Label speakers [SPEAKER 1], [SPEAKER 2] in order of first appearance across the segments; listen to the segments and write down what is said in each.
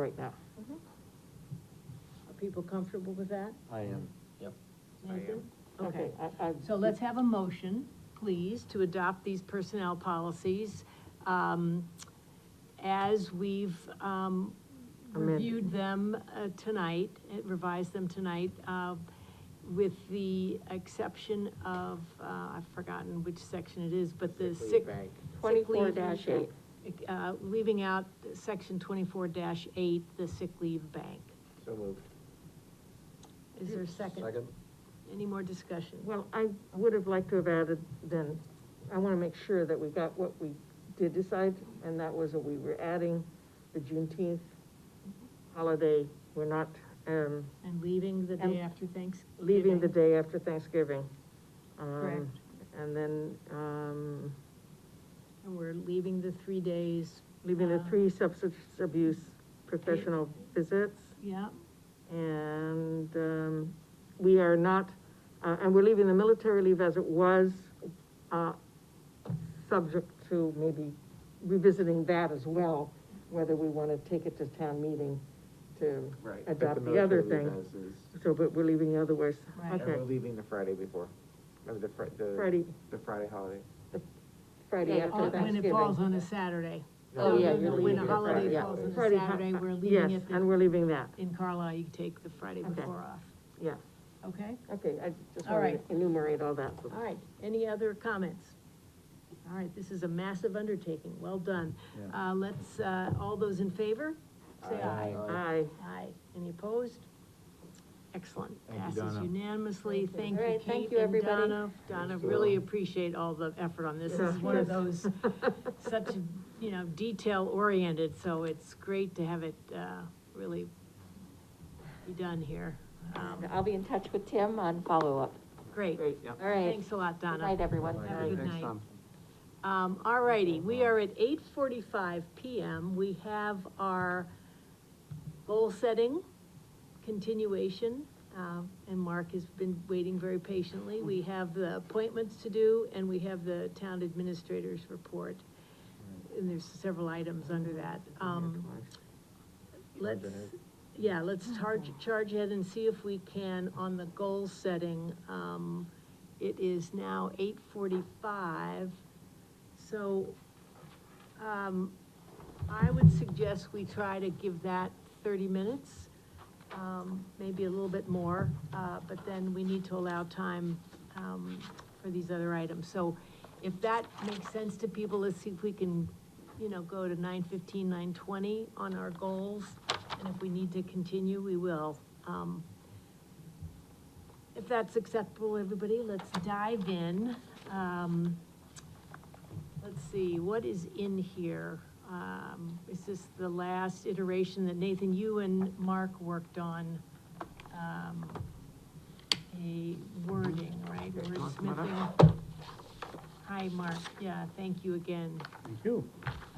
[SPEAKER 1] right now.
[SPEAKER 2] Are people comfortable with that?
[SPEAKER 3] I am, yep.
[SPEAKER 2] Nathan? Okay,
[SPEAKER 1] I, I.
[SPEAKER 2] so let's have a motion, please, to adopt these personnel policies, um, as we've, um,
[SPEAKER 1] Amend-
[SPEAKER 2] reviewed them, uh, tonight, uh, revised them tonight, uh, with the exception of, uh, I've forgotten which section it is, but the sick. sick leave-
[SPEAKER 1] 24-8.
[SPEAKER 2] Uh, leaving out section twenty-four eight, the sick leave bank.
[SPEAKER 3] So moved.
[SPEAKER 2] Is there a second?
[SPEAKER 3] Second?
[SPEAKER 2] Any more discussion?
[SPEAKER 1] Well, I would have liked to have added then, I wanna make sure that we got what we did decide, and that was that we were adding the Juneteenth holiday, we're not, um,
[SPEAKER 2] And leaving the
[SPEAKER 1] And
[SPEAKER 2] day after Thanksgiving.
[SPEAKER 1] leaving the day after Thanksgiving. Um,
[SPEAKER 2] Correct.
[SPEAKER 1] And then, um,
[SPEAKER 2] And we're leaving the three days.
[SPEAKER 1] leaving the
[SPEAKER 2] uh,
[SPEAKER 1] three substance abuse professional visits.
[SPEAKER 2] Yeah,
[SPEAKER 1] And, um, we are not, uh, and we're leaving the military leave as it was, uh, subject to maybe revisiting that as well, whether we wanna take it to town meeting to
[SPEAKER 4] Right.
[SPEAKER 1] adopt the other thing. So, but we're leaving the other ways,
[SPEAKER 2] Right.
[SPEAKER 4] And
[SPEAKER 1] okay,
[SPEAKER 4] we're leaving the Friday before, or the Fri- the.
[SPEAKER 1] Friday.
[SPEAKER 4] The Friday holiday.
[SPEAKER 1] Friday
[SPEAKER 5] Yeah,
[SPEAKER 1] after
[SPEAKER 2] on- when
[SPEAKER 1] Thanksgiving.
[SPEAKER 2] it falls on a Saturday.
[SPEAKER 1] Oh, yeah, you're
[SPEAKER 2] When
[SPEAKER 1] leaving
[SPEAKER 2] a
[SPEAKER 1] it
[SPEAKER 2] holiday
[SPEAKER 1] Friday.
[SPEAKER 2] falls on a
[SPEAKER 1] Friday, huh?
[SPEAKER 2] Saturday, we're leaving
[SPEAKER 1] Yes,
[SPEAKER 2] it,
[SPEAKER 1] and
[SPEAKER 2] the-
[SPEAKER 1] we're leaving that,
[SPEAKER 2] in Carlisle, you take the Friday
[SPEAKER 1] Okay.
[SPEAKER 2] before off,
[SPEAKER 1] yeah,
[SPEAKER 2] okay?
[SPEAKER 1] okay, I just
[SPEAKER 2] All
[SPEAKER 1] wanna
[SPEAKER 2] right.
[SPEAKER 1] enumerate all that.
[SPEAKER 2] All right, any other comments? All right, this is a massive undertaking, well done. Uh, let's, uh, all those in favor, say aye.
[SPEAKER 1] Aye,
[SPEAKER 2] Aye. Any opposed? Excellent.
[SPEAKER 3] Thank you,
[SPEAKER 2] Passes
[SPEAKER 3] Donna.
[SPEAKER 2] unanimously. Thank
[SPEAKER 5] All
[SPEAKER 2] you,
[SPEAKER 5] right, thank
[SPEAKER 2] Kate
[SPEAKER 5] you,
[SPEAKER 2] and
[SPEAKER 5] everybody.
[SPEAKER 2] Donna. Donna, really appreciate all the effort on this. This is one of those, such, you know, detail-oriented, so it's great to have it, uh, really be done here. Um,
[SPEAKER 5] I'll be in touch with Tim on follow-up.
[SPEAKER 2] Great.
[SPEAKER 1] great,
[SPEAKER 5] All right.
[SPEAKER 2] Thanks a lot,
[SPEAKER 5] Good
[SPEAKER 2] Donna.
[SPEAKER 5] night, everyone.
[SPEAKER 2] Have a good night. Um, all righty, we are at eight forty-five PM. We have our goal setting continuation, um, and Mark has been waiting very patiently. We have the appointments to do, and we have the town administrator's report. And there's several items under that. Um, let's, yeah, let's charge, charge ahead and see if we can on the goal setting. Um, it is now eight forty-five, so, um, I would suggest we try to give that thirty minutes, um, maybe a little bit more, uh, but then we need to allow time, um, for these other items. So if that makes sense to people, let's see if we can, you know, go to nine fifteen, nine twenty on our goals. And if we need to continue, we will. Um, if that's acceptable, everybody, let's dive in. Um, let's see, what is in here? Um, is this the last iteration that Nathan, you and Mark worked on? Um, a wording, right, wordsmithing? Hi, Mark, yeah, thank you again
[SPEAKER 3] Thank you.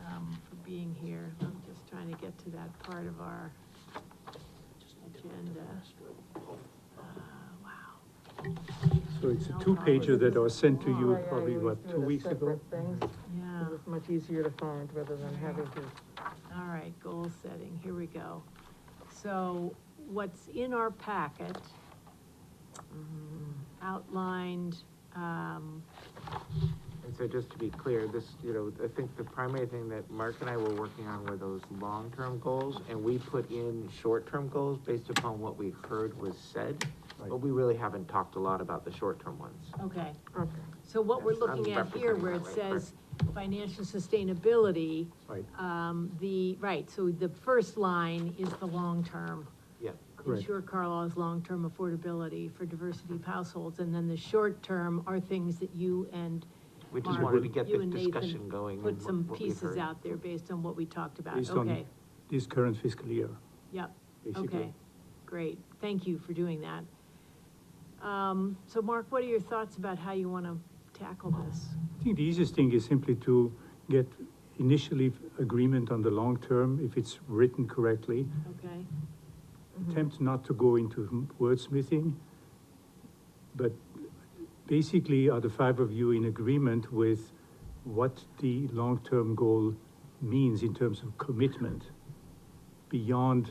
[SPEAKER 2] um, for being here. I'm just trying to get to that part of our agenda. Uh, Wow.
[SPEAKER 6] So it's a two-pager that was sent to you probably, what, two weeks ago?
[SPEAKER 2] Yeah,
[SPEAKER 1] It was much easier to find rather than having to.
[SPEAKER 2] all right, goal setting, here we go. So what's in our packet mm-hmm, outlined, um,
[SPEAKER 4] And so just to be clear, this, you know, I think the primary thing that Mark and I were working on were those long-term goals, and we put in short-term goals based upon what we heard was said, but we really haven't talked a lot about the short-term ones.
[SPEAKER 2] okay.
[SPEAKER 1] Okay.
[SPEAKER 2] So what we're
[SPEAKER 4] Yes, I'm
[SPEAKER 2] looking at here
[SPEAKER 4] representing
[SPEAKER 2] where it
[SPEAKER 4] that way,
[SPEAKER 2] says financial sustainability,
[SPEAKER 6] Right,
[SPEAKER 2] um, the, right, so the first line is the long-term.
[SPEAKER 4] Yeah,
[SPEAKER 6] Correct.
[SPEAKER 2] ensure Carlisle's long-term affordability for diversity of households, and then the short-term are things that you and
[SPEAKER 4] we just
[SPEAKER 2] Mark,
[SPEAKER 4] wanted to get
[SPEAKER 2] you
[SPEAKER 4] the
[SPEAKER 2] and Nathan
[SPEAKER 4] discussion going. on
[SPEAKER 2] put some
[SPEAKER 4] what we've
[SPEAKER 2] pieces
[SPEAKER 4] heard.
[SPEAKER 2] out there based on what we talked about,
[SPEAKER 6] based
[SPEAKER 2] okay,
[SPEAKER 6] on this current fiscal year,
[SPEAKER 2] yep, okay,
[SPEAKER 6] basically.
[SPEAKER 2] great, thank you for doing that. Um, so Mark, what are your thoughts about how you wanna tackle this?
[SPEAKER 6] I think the easiest thing is simply to get initially agreement on the long term, if it's written correctly.
[SPEAKER 2] Okay, Mm-hmm.
[SPEAKER 6] Attempt not to go into wordsmithing. But basically, are the five of you in agreement with what the long-term goal means in terms of commitment? beyond